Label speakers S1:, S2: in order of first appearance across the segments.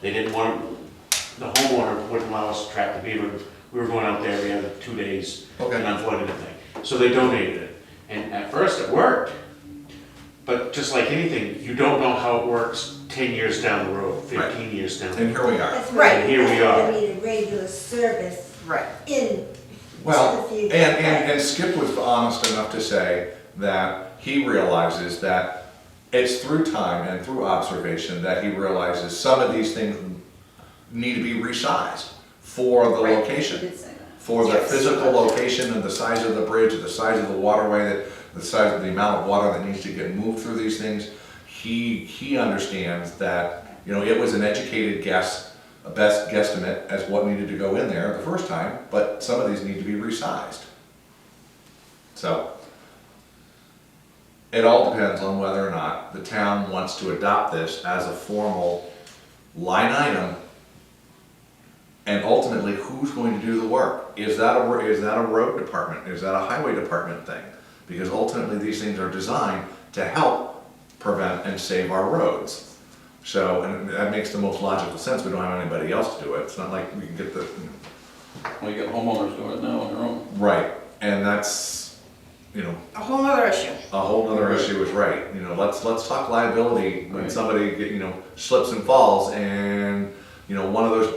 S1: They didn't want, the homeowner wouldn't allow us to trap the beaver. We were going out there every other two days and
S2: Okay,
S1: unflooded the thing. So they donated it. And at first it worked, but just like anything, you don't know how it works ten years down the road,
S2: Right.
S1: fifteen years down. the
S2: and
S1: road.
S2: here we are.
S3: That's
S4: Right.
S3: right.
S1: Here we are.
S3: We need a regular service
S4: Right.
S3: in.
S2: Well,
S3: Just a few-
S2: and, and, and Skip was honest enough to say that he realizes that it's through time and through observation that he realizes some of these things need to be resized for the
S4: Right.
S2: location.
S4: Did say that.
S2: for the
S4: Yes.
S2: physical location and the size of the bridge, the size of the waterway, that, the size of the amount of water that needs to get moved through these things. He, he understands that, you know, it was an educated guess, a best guesstimate as what needed to go in there the first time, but some of these need to be resized. So, it all depends on whether or not the town wants to adopt this as a formal line item and ultimately, who's going to do the work? Is that a, ro- is that a road department? Is that a highway department thing? Because ultimately, these things are designed to help prevent and save our roads. So, and that makes the most logical sense, we don't have anybody else to do it, it's not like we can get the, you know,
S5: We get homeowners doing it now on their own.
S2: right, and that's, you know,
S4: A whole other issue.
S2: a whole other issue is right, you know, let's, let's talk liability when
S5: Right.
S2: somebody, you know, slips and falls and, you know, one of those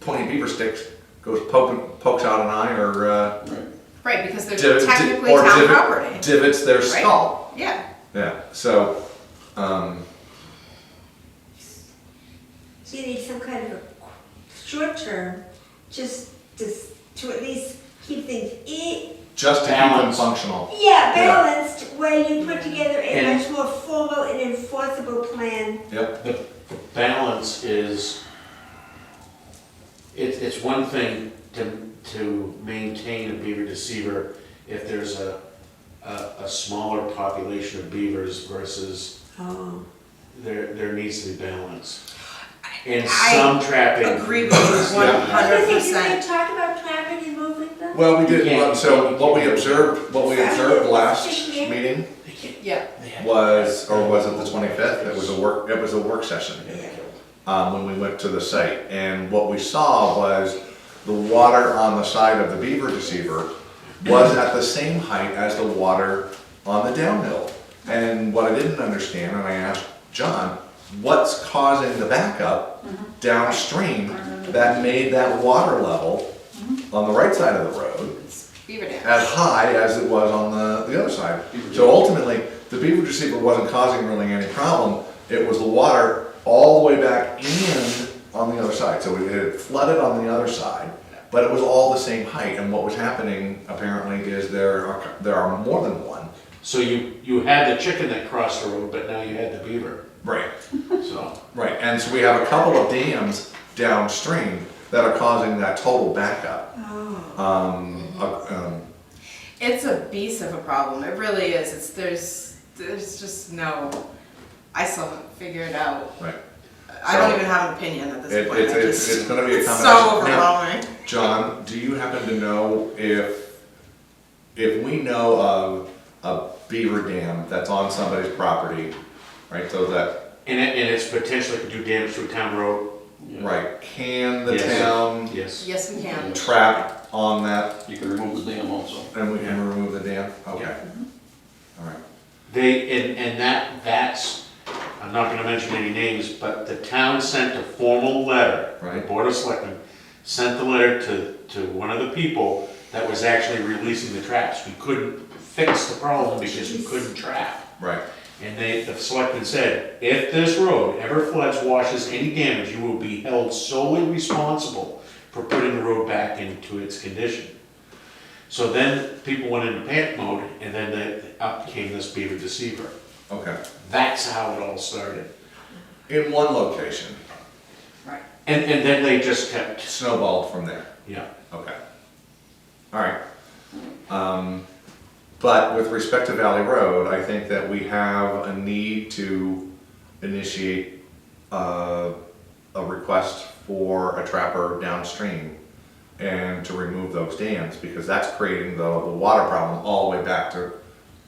S2: pointy beaver sticks goes poking, pokes out an eye or, uh,
S5: Right.
S4: Right, because they're
S2: Div- di-
S4: technically
S2: or
S4: town
S2: divot-
S4: property.
S2: Divots their
S4: Right?
S2: skull.
S4: Yeah.
S2: Yeah. So, um,
S3: You need some kind of a qu- short term, just to, s- to at least keep things, e-
S2: just to keep them
S1: Balance.
S2: functional. Yeah.
S3: yeah, balanced, where you put together a
S1: And-
S3: much more formal and enforceable plan.
S2: Yep.
S1: The balance is, it's, it's one thing to, to maintain a beaver deceiver if there's a, a, a smaller population of beavers versus
S3: Oh.
S1: there, there needs to be balance. And
S4: I
S1: some trapping.
S4: Agree with you one
S3: Do
S4: hundred
S3: you think you can
S4: percent.
S3: talk about traffic and movement though?
S2: Well, we did.
S1: You can't-
S2: so
S1: you
S2: what we
S1: can't-
S2: observed, what we
S3: Is that
S2: observed
S3: what
S2: last
S3: it's just here?
S2: meeting
S1: They can't-
S4: Yeah.
S1: they have-
S2: was, or was it the twenty fifth? It was a work. It was a work session.
S1: They have to-
S2: um, when we went to the site. And what we saw was the water on the side of the beaver deceiver was at the same height as the water on the downhill. And what I didn't understand, and I asked John, what's causing the backup downstream that made that water level on the right side of the road
S4: Beaver
S2: as
S4: dam.
S2: high as it was on the, the other side. So ultimately, the beaver deceiver wasn't causing really any problem. It was the water all the way back in on the other side. So it had flooded on the other side, but it was all the same height. And what was happening apparently is there are, there are more than one.
S1: So you, you had the chicken that crossed the road, but now you had the beaver,
S2: Right.
S1: so.
S2: Right, and so we have a couple of dams downstream that are causing that total backup. Um, uh, um,
S4: It's a beast of a problem. It really is. It's, there's, there's just no, I still haven't figured out.
S2: right.
S4: I don't
S2: So-
S4: even have an opinion at
S2: It-
S4: this point.
S2: it's-
S4: I
S2: it's-
S4: just-
S2: it's gonna be a
S4: It's so
S2: combination. Now-
S4: overwhelming.
S2: John, do you happen to know if, if we know of a beaver dam that's on somebody's property, right, so that,
S1: And it, and it's potentially could do damage to a town road,
S5: Yeah.
S2: right, can the
S1: Yes.
S2: town
S1: yes.
S4: Yes, we can.
S2: trap on that
S5: You can remove the dam also.
S2: and we can remove the dam? Okay. All right,
S1: They, and, and that, that's, I'm not gonna mention any names, but the town sent a formal letter.
S2: Right.
S1: The Board of Selectmen sent the letter to, to one of the people that was actually releasing the traps. We couldn't fix the problem because we couldn't trap.
S2: right,
S1: And they, the selectmen said, if this road ever floods, washes any damage, you will be held solely responsible for putting the road back into its condition. So then people went into panic mode and then the, up came this beaver deceiver.
S2: okay.
S1: That's how it all started.
S2: In one location,
S4: Right.
S1: And, and then they just kept,
S2: snowballed from there.
S1: yeah.
S2: Okay. All right. Um, but with respect to Valley Road, I think that we have a need to initiate uh, a request for a trapper downstream and to remove those dams because that's creating the, the water problem all the way back to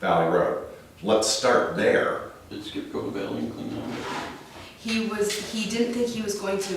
S2: Valley Road. Let's start there.
S5: Did Skip go to Valley and clean that?
S4: he was, he didn't think he was going to